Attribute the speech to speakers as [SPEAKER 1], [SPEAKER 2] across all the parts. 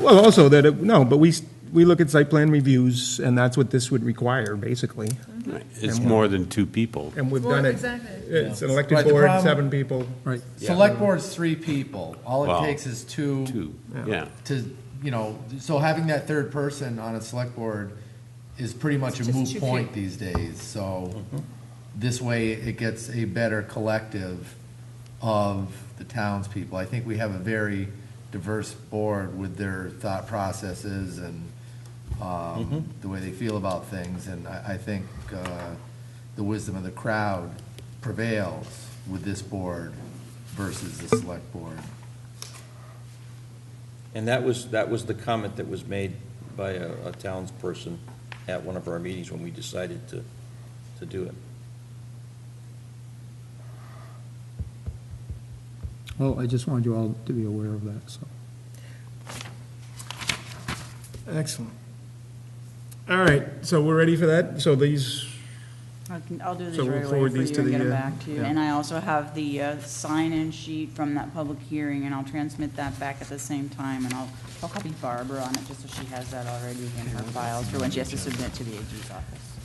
[SPEAKER 1] Well, also that, it- no, but we, s- we look at site plan reviews, and that's what this would require, basically.
[SPEAKER 2] It's more than two people.
[SPEAKER 1] And we've done
[SPEAKER 3] Well,
[SPEAKER 1] it.
[SPEAKER 3] exactly.
[SPEAKER 1] It's an
[SPEAKER 4] Right,
[SPEAKER 1] elected
[SPEAKER 4] the
[SPEAKER 1] board,
[SPEAKER 4] problem-
[SPEAKER 1] seven people.
[SPEAKER 5] Right.
[SPEAKER 4] Select board's three people. All
[SPEAKER 2] Wow.
[SPEAKER 4] it takes is two
[SPEAKER 2] Two, yeah.
[SPEAKER 4] to, you know, so having that third person on a select board is pretty much
[SPEAKER 3] It's
[SPEAKER 4] a
[SPEAKER 3] just
[SPEAKER 4] moot
[SPEAKER 3] too
[SPEAKER 4] point these days, so this way it gets a better collective of the townspeople. I think we have a very diverse board with their thought processes and, um, the way they feel about things, and I, I think, uh, the wisdom of the crowd prevails with this board versus the select board.
[SPEAKER 6] And that was, that was the comment that was made by a, a townsperson at one of our meetings when we decided to, to do it.
[SPEAKER 5] Well, Oh, I just wanted you all to be aware of that, so.
[SPEAKER 1] Excellent. All right, so we're ready for that? So these,
[SPEAKER 7] I can- I'll do these
[SPEAKER 1] So we'll
[SPEAKER 7] right away
[SPEAKER 1] forward
[SPEAKER 7] for
[SPEAKER 1] these
[SPEAKER 7] you
[SPEAKER 1] to
[SPEAKER 7] and get
[SPEAKER 1] the,
[SPEAKER 7] them
[SPEAKER 1] uh,
[SPEAKER 7] back to you.
[SPEAKER 1] yeah.
[SPEAKER 7] And I also have the uh, sign-in sheet from that public hearing, and I'll transmit that back at the same time, and I'll, I'll copy Barbara on it, just so she has that already in her files for when she has to submit to the AG's office.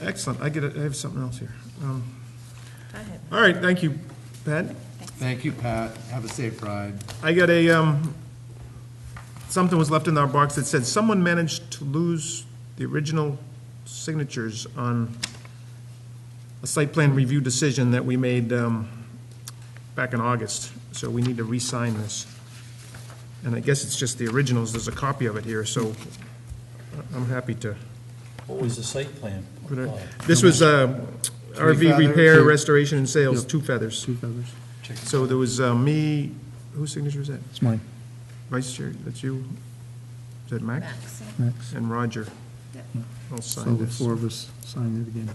[SPEAKER 1] excellent, I get, it. I have something else here. Um,
[SPEAKER 3] I have-
[SPEAKER 1] All right, thank you, Pat.
[SPEAKER 4] Thank you, Pat. Have a safe ride.
[SPEAKER 1] I got a, um, something was left in our box that said, someone managed to lose the original signatures on a site plan review decision that we made, um, back in August, so we need to re-sign this. And I guess it's just the originals, there's a copy of it here, so I'm happy to.
[SPEAKER 8] What was the site plan?
[SPEAKER 1] put it- This was, uh, RV
[SPEAKER 4] feathers.
[SPEAKER 1] repair, restoration and sales, two feathers.
[SPEAKER 5] Two feathers.
[SPEAKER 1] So there was, uh, me, whose signature is that?
[SPEAKER 5] It's mine,
[SPEAKER 1] Vice Chair, that's you? Is that Max?
[SPEAKER 3] Max.
[SPEAKER 5] Max.
[SPEAKER 1] And Roger. I'll
[SPEAKER 5] So
[SPEAKER 1] sign
[SPEAKER 5] the
[SPEAKER 1] this.
[SPEAKER 5] four of us signed it again.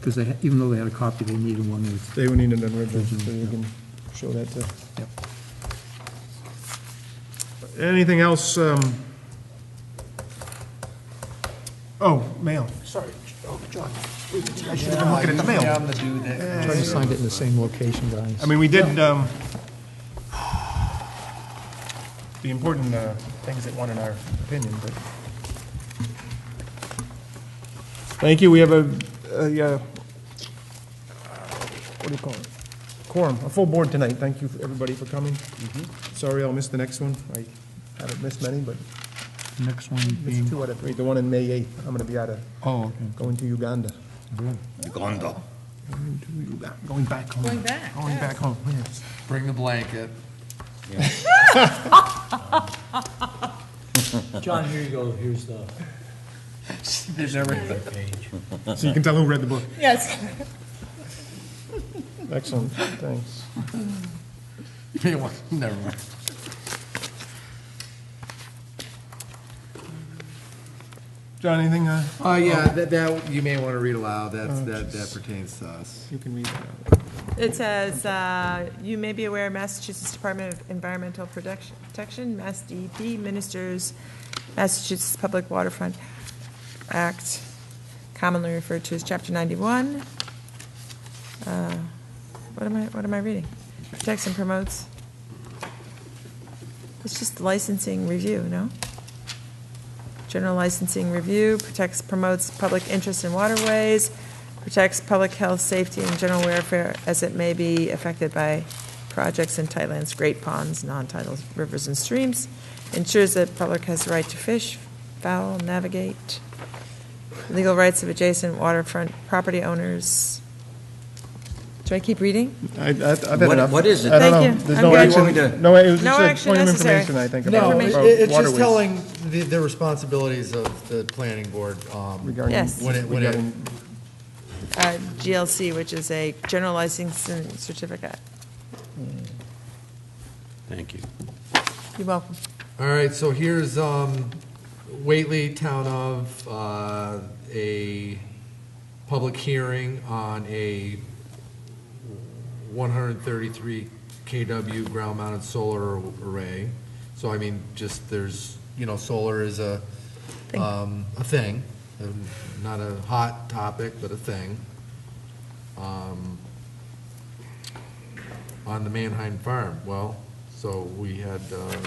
[SPEAKER 5] Because they, ha- even though they had a copy, they needed one with,
[SPEAKER 1] They would need an original, so you can show that to.
[SPEAKER 5] Yep.
[SPEAKER 1] Anything else? um, Oh, mail. Sorry, oh, John. I should have been looking at the mail.
[SPEAKER 4] I'm the dude that.
[SPEAKER 5] I signed it in the same location, guys.
[SPEAKER 1] I mean, we did um, the important uh, things that won in our opinion, but. Thank you, we have a, a, uh, what do you call it? Quorum, a full board tonight, thank you, everybody, for coming. Sorry I'll miss the next one, I haven't missed many, but
[SPEAKER 5] Next one
[SPEAKER 1] missed
[SPEAKER 5] being,
[SPEAKER 1] two out of three, the one in May 8th, I'm gonna be out of,
[SPEAKER 5] oh, okay.
[SPEAKER 1] going to Uganda. Going to Uganda. Going back home.
[SPEAKER 3] Going back,
[SPEAKER 1] Going back home, yes.
[SPEAKER 4] Bring the blanket.
[SPEAKER 8] John, here you go, here's the
[SPEAKER 4] There's never.
[SPEAKER 8] page.
[SPEAKER 1] So you can tell who read the book.
[SPEAKER 3] Yes.
[SPEAKER 1] Excellent, thanks.
[SPEAKER 4] Never mind.
[SPEAKER 1] John, anything uh,
[SPEAKER 4] Uh, yeah, that, that, you may want to read aloud. That's, that, that pertains to us.
[SPEAKER 1] you can read?
[SPEAKER 3] It says, uh, you may be aware Massachusetts Department of Environmental Protection- Protection, Mass DEP, ministers Massachusetts Public Waterfront Act, commonly referred to as Chapter 91. Uh, What am I, what am I reading? Protects and promotes. It's just licensing review, no? General licensing review protects, promotes public interest in waterways, protects public health, safety, and general welfare as it may be affected by projects in tightlands, great ponds, non-tidal rivers and streams, ensures that public has the right to fish, fowl, navigate, legal rights of adjacent waterfront property owners. Do I keep reading?
[SPEAKER 1] I've had
[SPEAKER 6] What- enough. what is it?
[SPEAKER 1] I don't
[SPEAKER 3] Thank
[SPEAKER 1] know.
[SPEAKER 3] you.
[SPEAKER 1] There's
[SPEAKER 3] I'm
[SPEAKER 1] no
[SPEAKER 3] good.
[SPEAKER 1] action,
[SPEAKER 6] Want me to-
[SPEAKER 1] no, it was
[SPEAKER 3] No
[SPEAKER 1] just a
[SPEAKER 3] action
[SPEAKER 1] point of
[SPEAKER 3] necessary.
[SPEAKER 1] information, I think.
[SPEAKER 4] No,
[SPEAKER 1] about-
[SPEAKER 4] it-
[SPEAKER 1] about
[SPEAKER 4] it's just
[SPEAKER 1] waterways
[SPEAKER 4] telling the, the responsibilities of the planning board, um,
[SPEAKER 1] regarding-
[SPEAKER 3] Yes.
[SPEAKER 4] when it, when it,
[SPEAKER 1] regarding-
[SPEAKER 3] Uh, GLC, which is a general licensing certificate.
[SPEAKER 2] Thank you.
[SPEAKER 3] You're welcome.
[SPEAKER 4] All right, so here's, um, Whately Town of, uh, a public hearing on a one hundred and thirty-three KW ground-mounted solar array. So I mean, just there's, you know, solar is a,
[SPEAKER 3] Thing.
[SPEAKER 4] um, a thing, um, not a hot topic, but a thing. Um, on the Manheim Farm, well, so we had, uh,